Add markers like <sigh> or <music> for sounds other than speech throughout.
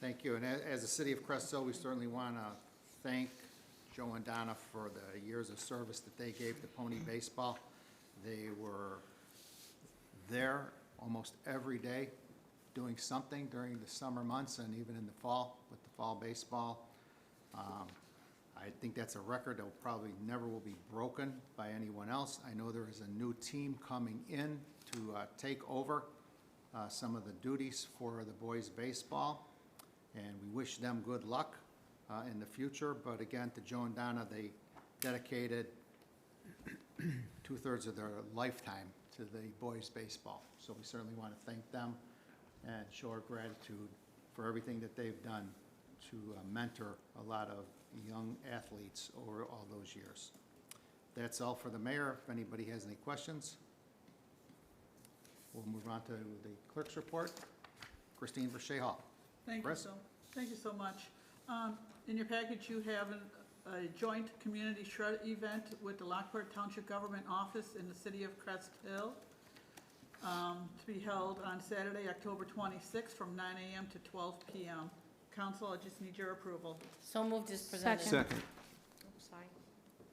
Thank you. And a- as the city of Crest Hill, we certainly want to thank Joe and Donna for the years of service that they gave to Pony Baseball. They were there almost every day doing something during the summer months and even in the fall with the fall baseball. Um, I think that's a record that will probably never will be broken by anyone else. I know there is a new team coming in to uh, take over uh, some of the duties for the boys' baseball, and we wish them good luck uh, in the future. But again, to Joe and Donna, they dedicated <clears throat> two-thirds of their lifetime to the boys' baseball. So we certainly want to thank them and show our gratitude for everything that they've done to uh, mentor a lot of young athletes over all those years. That's all for the mayor. If anybody has any questions, we'll move on to the clerk's report. Christine Verche Hall. Thank you Chris? so, thank you so much. Um, In your package, you have an- a joint community shred event with the Lockport Township Government Office in the city of Crest Hill um, to be held on Saturday, October 26th, from 9 a.m. to 12 p.m. Council, I just need your approval. So moved as presented. Second. Oops, sorry.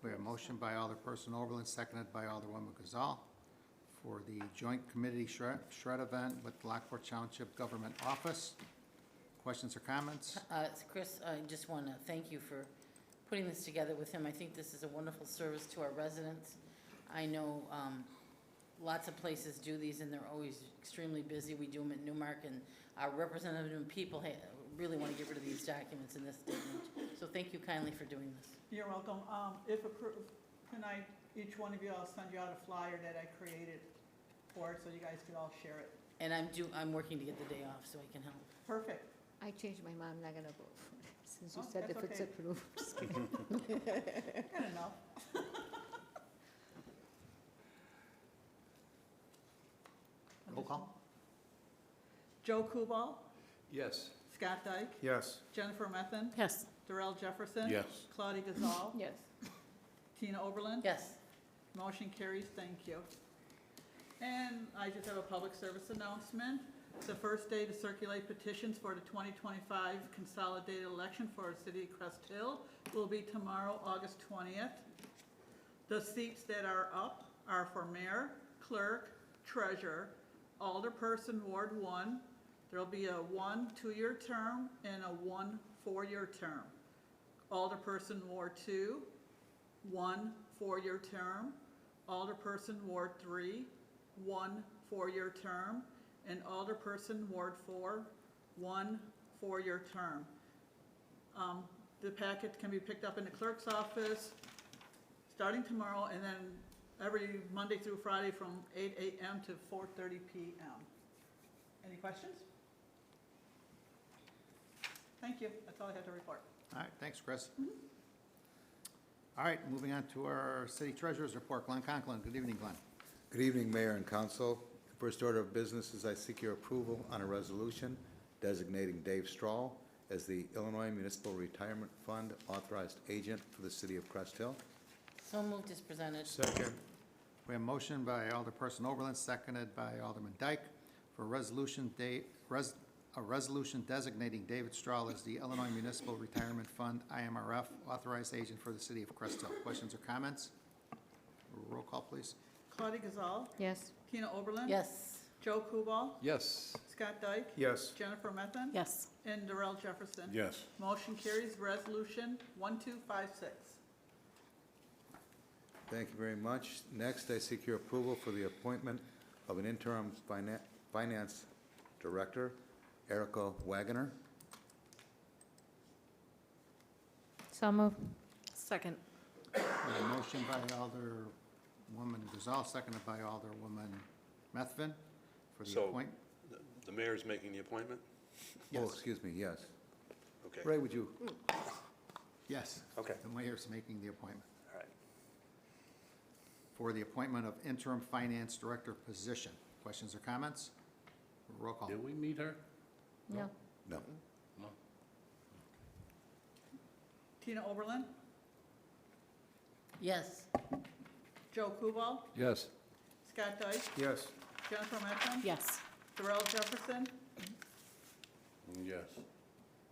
We have a motion by Alderperson Oberlin, seconded by Alderwoman Gazal, for the joint committee shred, shred event with Lockport Township Government Office. Questions or comments? Uh, it's Chris, I just want to thank you for putting this together with him. I think this is a wonderful service to our residents. I know um, lots of places do these, and they're always extremely busy. We do them at Newmark, and our representative and people ha- really want to get rid of these documents in this day and age. So thank you kindly for doing this. You're welcome. Um, If approved, can I, each one of you, I'll send you out a flyer that I created for, it so you guys could all share it. And I'm do, I'm working to get the day off so I can help. Perfect. I changed my mind, I'm not gonna vote for it, since you Oh, said that's if it's okay. approved. Good enough. <laughs> Roll call? Joe Kubal, Yes. Scott Dyke, Yes. Jennifer Methvin, Yes. Darrell Jefferson. Yes. Claudia Gazal. Yes. Tina Oberlin. Yes. Motion carries, thank you. And I just have a public service announcement. The first day to circulate petitions for the 2025 consolidated election for the City of Crest Hill will be tomorrow, August 20th. The seats that are up are for mayor, clerk, treasurer, alderperson, Ward 1. There'll be a one two-year term and a one four-year term. Alderperson, Ward 2, one four-year term, alderperson Ward Three, one four-year term, and alderperson Ward Four, one four-year term. Um, The packet can be picked up in the clerk's office starting tomorrow and then every Monday through Friday from eight AM to four-thirty PM. Any questions? Thank you, that's all I have to report. All right, thanks, Chris. All right, moving on to our city treasurer's report. Glenn Conklin, good evening, Glenn. Good evening, Mayor and Council. First order of business is I seek your approval on a resolution designating Dave Strahl as the Illinois Municipal Retirement Fund authorized agent for the city of Crest Hill. So moved as presented. Second. We have a motion by Alderperson Oberlin, seconded by Alderman Dyke, for a resolution da, res, a resolution designating David Strahl as the Illinois Municipal Retirement Fund, IMRF, authorized agent for the city of Crest Hill. Questions or comments? Roll call, please. Claudia Gazal, Yes, Tina Oberlin. Yes. Joe Kubal, Yes. Scott Dyke. Yes. Jennifer Methvin. Yes. And Darrell Jefferson. Yes. Motion carries resolution 1256. Thank you very much. Next, I seek your approval for the appointment of an interim finan- finance director, Erica Wagoner. Oh, so move. Second. We have a motion by Alderwoman Gazal, seconded by Alderwoman Methvin, for the So- appointment. The- The mayor's making the appointment? Oh, Yes. excuse me, yes. Okay, all Ray, would you? Yes. Okay. The mayor's making the appointment. right. for the appointment of interim finance director position. Questions or comments? Roll call. Did we meet her? No, No. Tina Oberlin, Yes. Joe Kubal, Yes. Scott Dyke, Yes. Jennifer Methvin, Yes. Darrell Jefferson, Yes.